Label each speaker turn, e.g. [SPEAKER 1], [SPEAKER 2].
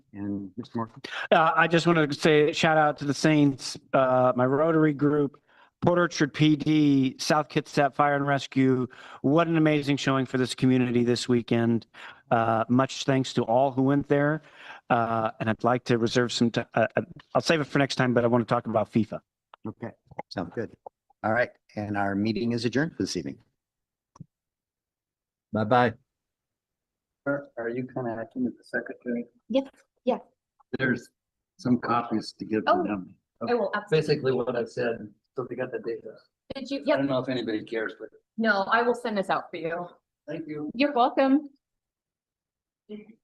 [SPEAKER 1] And Mr. Morgan?
[SPEAKER 2] Uh, I just want to say shout out to the Saints, uh, my Rotary group, Port Orchard PD, South Kitsap Fire and Rescue. What an amazing showing for this community this weekend. Uh, much thanks to all who went there. Uh, and I'd like to reserve some, ti- uh, uh, I'll save it for next time, but I want to talk about FIFA.
[SPEAKER 1] Okay, sound good. All right, and our meeting is adjourned for this evening.
[SPEAKER 3] Bye-bye.
[SPEAKER 4] Are, are you connecting with the secretary?
[SPEAKER 5] Yes, yes.
[SPEAKER 4] There's some copies to give
[SPEAKER 5] Oh.
[SPEAKER 4] to them.
[SPEAKER 5] I will absolutely.
[SPEAKER 4] Basically what I said, so they got the data.
[SPEAKER 5] Did you,
[SPEAKER 4] I
[SPEAKER 5] yep,
[SPEAKER 4] don't know if anybody cares, but
[SPEAKER 5] no, I will send this out for you.
[SPEAKER 4] thank you.
[SPEAKER 5] You're welcome.